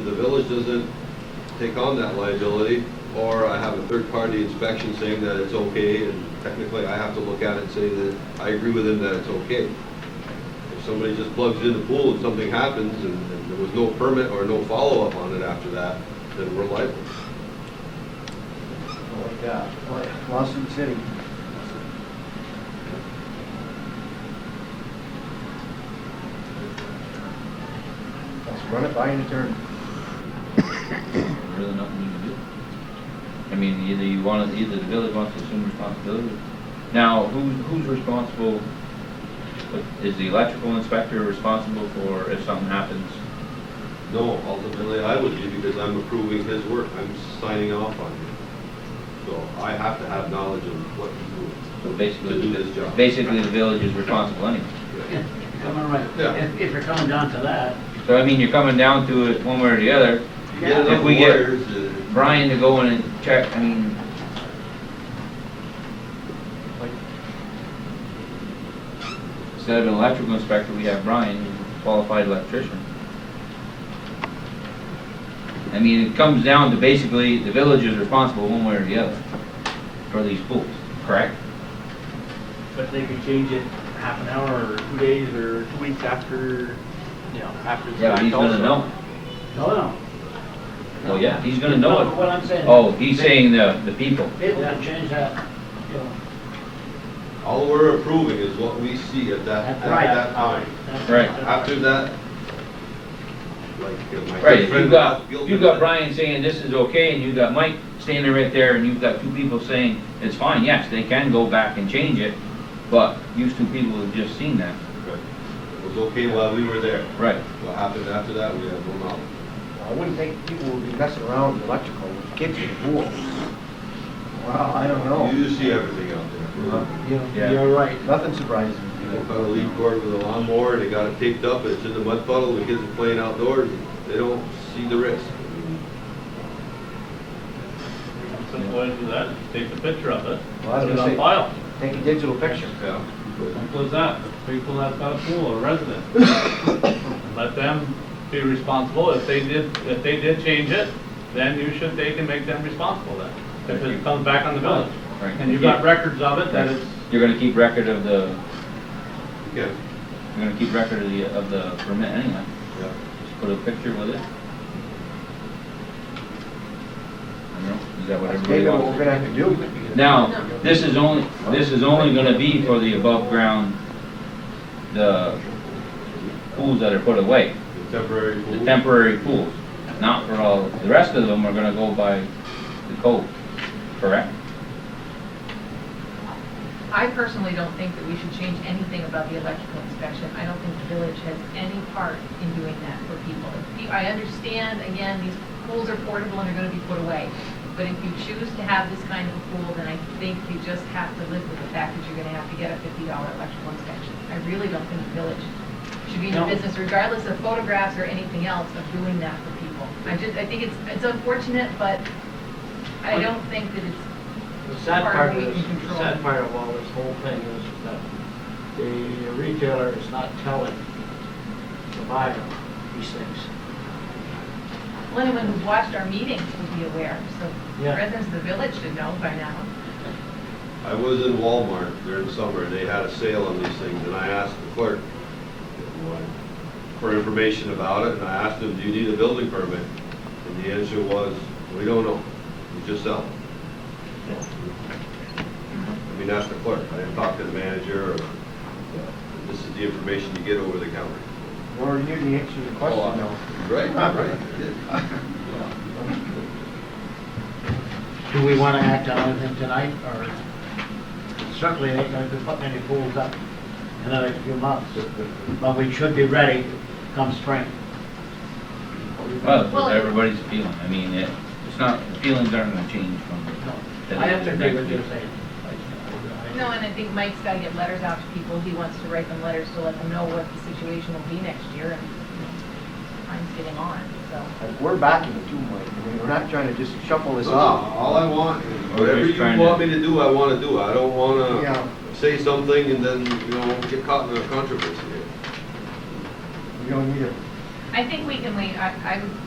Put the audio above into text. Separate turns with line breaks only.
village doesn't take on that liability, or I have a third-party inspection saying that it's okay, and technically I have to look at it and say that I agree with him that it's okay. If somebody just plugs in the pool and something happens, and and there was no permit or no follow-up on it after that, then we're liable.
Like, uh, like Lawson City. Let's run it by an attorney.
Really nothing you can do. I mean, either you want to, either the village wants to assume responsibility. Now, who, who's responsible? Is the electrical inspector responsible for if something happens?
No, ultimately, I would be, because I'm approving his work, I'm signing off on it. So I have to have knowledge of what he's doing.
So basically,
To do his job.
basically the village is responsible anyway.
Yeah.
Coming right,
Yeah.
if, if you're coming down to that,
So I mean, you're coming down to it one way or the other.
You get
If
enough
we get-
lawyers, uh,
Brian to go in and check, I mean,
Like,
instead of an electrical inspector, we have Brian, who's a qualified electrician. I mean, it comes down to basically, the village is responsible one way or the other for these pools, correct?
But they could change it half an hour or two days or two weeks after, you know, after. the
Yeah, but
fact
he's gonna
also.
know.
Oh,
no, no.
Well, yeah, he's gonna know
No, but
it.
What I'm saying.
Oh, he's saying the, the people.
People can change that, you know.
All we're approving is what we see at that, at
Right.
that time.
that's-
Right.
After that, like uh, my
Right,
good
if you've
friend.
got,
Gilbert-
you've got Brian saying this is okay, and you've got Mike standing right there, and you've got two people saying it's fine, yes, they can go back and change it, but these two people have just seen that.
Right. It was okay while we were there.
Right.
What happened after that, we have no knowledge.
I wouldn't think people would be messing around with electrical, with kids in the pool. Well, I don't know.
You just see everything out there.
You know,
Yeah.
You're right.
Nothing surprises
They
me.
found a lead cord with a lawnmower, they got it taped up, it's in the mud puddle, the kids are playing outdoors, they don't see the risk.
Simple way to do that, is take a picture of it,
Well, I was
put it
gonna
on
say-
file.
Take a digital picture.
Yeah. But
Simple as that. People that's got a pool or resident. Let them be responsible. If they did, if they did change it, then you should, they can make them responsible then. If it comes back on the village.
Right.
And you've got records of it, that it's,
You're gonna keep record of the,
Yeah,
you're gonna keep record of the, of the permit anyway,
yeah.
just put a picture with it. I don't know, is that what
That's
everybody
maybe what we're
wants?
gonna have to do.
Now, this is only, this is only gonna be for the above ground, the pools that are put away.
The temporary pool.
the temporary pools, not for all, the rest of them are gonna go by the code, correct?
I personally don't think that we should change anything about the electrical inspection. I don't think the village has any part in doing that for people. If you- I understand, again, these pools are portable and are going to be put away, but if you choose to have this kind of a pool, then I think you just have to live with the fact that you're going to have to get a $50 electrical inspection. I really don't think the village should be in the
No.
business, regardless of photographs or anything else, of doing that for people. I just, I think it's, it's unfortunate, but I don't think that it's
The sad
Or
part
we
of this,
can
the sad part of all this whole thing is that the retailer is not telling the buyer these things.
Well, anyone who's watched our meetings would be aware, so
Yeah.
residents of the village should know by now.
I was in Walmart during the summer, and they had a sale on these things, and I asked the clerk for information about it, and I asked them, do you need a building permit? And the answer was, we don't know, we just sell. I mean, that's the clerk, I didn't talk to the manager, or, this is the information you get over the counter.
Or you can answer the question though.
Right, right.
Do we want to act on anything tonight, or certainly ain't going to be putting any pools up in another few months, but we should be ready come spring.
Well,
Well-
it's everybody's feeling, I mean, it, it's not, the feelings aren't gonna change from. the-
I have to agree with you,
next week.
saying.
No, and I think Mike's got to get letters out to people. He wants to write them letters to let them know what the situation will be next year, and time's getting on, so.
Like, We're backing it too much. I mean, we're not trying to just shuffle this
No,
off.
Oh, All I want, is
We're
whatever
just
you
trying
want
to-
me to do, I want to do. I don't want
Yeah.
to say something and then, you know, get caught in a controversy here.
We don't need it.
I think we can wait, I, I'm